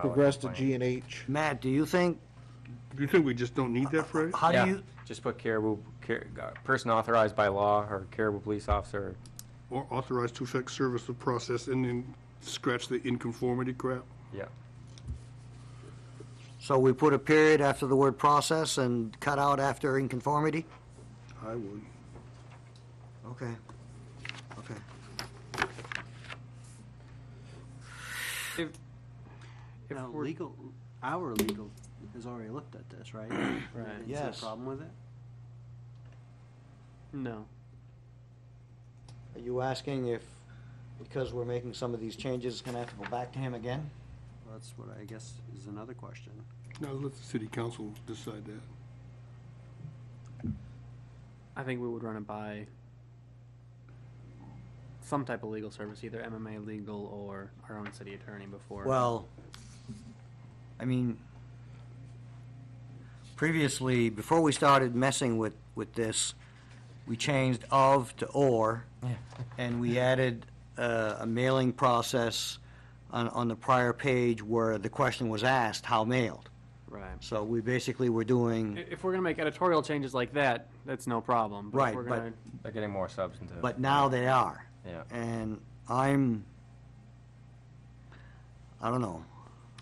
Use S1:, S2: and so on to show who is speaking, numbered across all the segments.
S1: progress to G and H.
S2: Matt, do you think,
S3: Do you think we just don't need that phrase?
S2: how
S4: Yeah,
S2: do you,
S4: Just put Caribou, Car- uh, person authorized by law or Caribou police officer.
S3: Or authorized to effect service of process and then scratch the inconformity crap?
S4: Yeah.
S2: so we put a period after the word process and cut out after inconformity?
S3: I would.
S2: Okay, okay.
S4: If, if
S5: Now,
S4: we're-
S5: legal, our legal has already looked at this, right? Right.
S2: Yes.
S5: Problem with it? No.
S2: Are you asking if, because we're making some of these changes, it's gonna have to go back to him again?
S5: That's what I guess is another question.
S3: Now let the city council decide that.
S6: I think we would run it by some type of legal service, either MMA legal or our own city attorney before.
S2: Well, I mean, previously, before we started messing with, with this, we changed of to or, and we added uh, a mailing process on, on the prior page where the question was asked, how mailed?
S6: right.
S2: So we basically were doing,
S6: I- If we're gonna make editorial changes like that, that's no problem. But
S2: Right,
S6: if we're
S2: but-
S6: gonna,
S4: They're getting more substantive.
S2: but now they are.
S4: Yeah.
S2: And I'm, I don't know,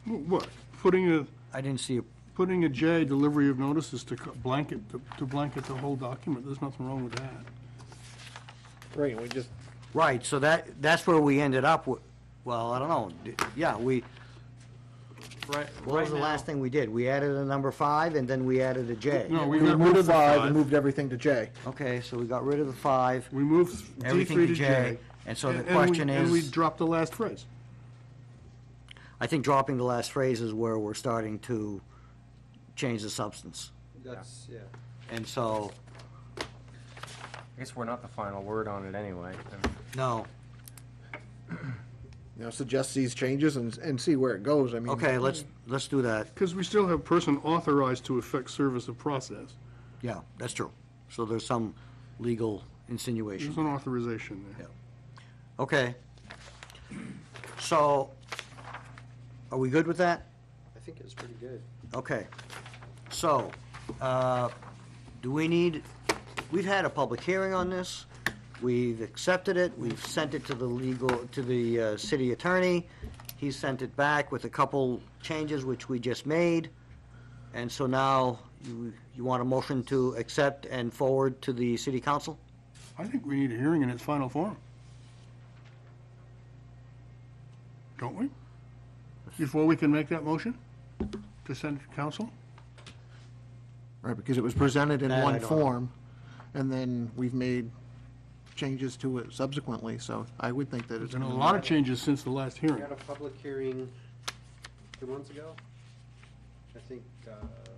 S3: What? Putting a,
S2: I didn't see, a
S3: putting a J, delivery of notices to co- blanket, to blanket the whole document, there's nothing wrong with that.
S1: Right, we just,
S2: right, so that, that's where we ended up with, well, I don't know, D- yeah, we,
S6: right,
S2: What was
S6: right
S2: the
S6: now,
S2: last thing we did? We added a number five, and then we added a J.
S3: No,
S1: we
S3: got rid of
S1: removed
S3: the
S1: five and moved everything to J.
S2: Okay, so we got rid of the five,
S3: We moved D
S2: everything
S3: three
S2: to J. And so the
S3: And- and we-
S2: question
S3: And we
S2: is,
S3: dropped the last phrase.
S2: I think dropping the last phrase is where we're starting to change the substance.
S5: That's, yeah.
S2: And so,
S4: I guess we're not the final word on it anyway. I mean,
S2: no,
S1: You know, suggest these changes and, and see where it goes, I mean.
S2: okay, let's, let's do that.
S3: Because we still have person authorized to effect service of process.
S2: Yeah, that's true. So there's some legal
S3: There's
S2: insinuation.
S3: an authorization there.
S2: Okay. So, are we good with that?
S5: I think it's pretty good.
S2: Okay, so, uh, do we need, we've had a public hearing on this, we've accepted it, we've sent it to the legal, to the uh, city attorney, he sent it back with a couple changes which we just made, and so now, you, you want a motion to accept and forward to the city council?
S3: I think we need a hearing in its final form. Don't we? Before we can make that motion to send to council?
S1: Right, because it was presented in
S2: That I
S1: one
S2: don't know.
S1: form, and then we've made changes to it subsequently, so I would think that
S3: There's
S1: it's.
S3: been a lot of changes since the last
S5: We
S3: hearing.
S5: had a public hearing two months ago. I think uh,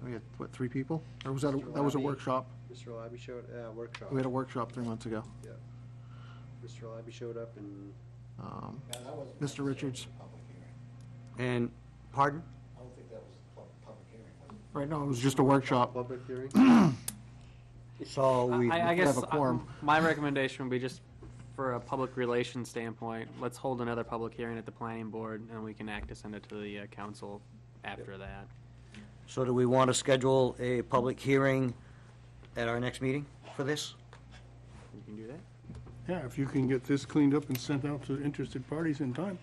S1: We had, what, three people? Or was that, a- that was a
S5: Lobby.
S1: workshop?
S5: Mr. Labby showed, uh, workshop.
S1: We had a workshop three months ago.
S5: Mr. Labby showed up and
S1: Um, Mr. Richards,
S2: And, pardon?
S1: right, no, it was just a workshop.
S5: public hearing.
S2: So we,
S6: I, I
S1: could have
S6: guess
S1: a quorum.
S6: I- my recommendation would be just for a public relations standpoint, let's hold another public hearing at the planning board and we can act to send it to the uh, council after that. uh,
S2: so do we want to schedule a public hearing at our next meeting for this?
S6: You can do that.
S3: Yeah, if you can get this cleaned up and sent out to interested parties in time.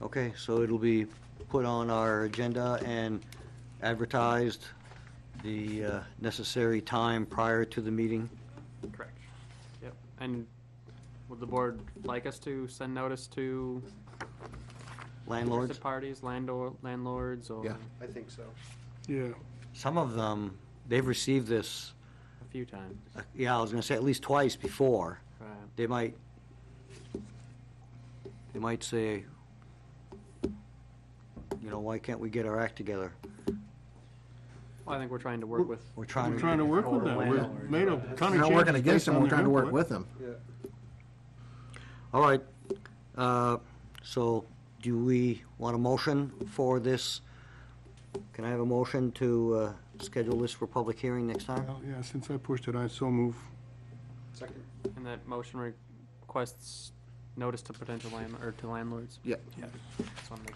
S2: Okay, so it'll be put on our agenda and advertised the uh, necessary time prior to the meeting?
S6: Correct. Yep. And would the board like us to send notice to
S2: Landlords,
S6: Interested parties, landlord, landlords, or
S1: Yeah.
S6: a
S5: I think so.
S3: Yeah,
S2: some of them, they've received this,
S6: few times.
S2: uh, yeah, I was gonna say at least twice before.
S6: Right.
S2: They might, they might say, you know, why can't we get our act together?
S6: Well, I think we're trying to work with.
S2: We're
S3: we're
S2: trying
S3: trying
S2: to,
S3: to work with them. We've made a ton of changes.
S1: We're not working against
S3: based
S1: them,
S3: on
S1: we're
S3: their
S1: trying to work
S3: input.
S1: with them.
S5: Yeah.
S2: all right. uh, So do we want a motion for this? Can I have a motion to uh, schedule this for public hearing next time?
S3: Well, Yeah, since I pushed it, I so move.
S5: Second.
S6: And that motion requests notice to potential land, or to landlords.
S1: Yeah.
S6: Just wanna make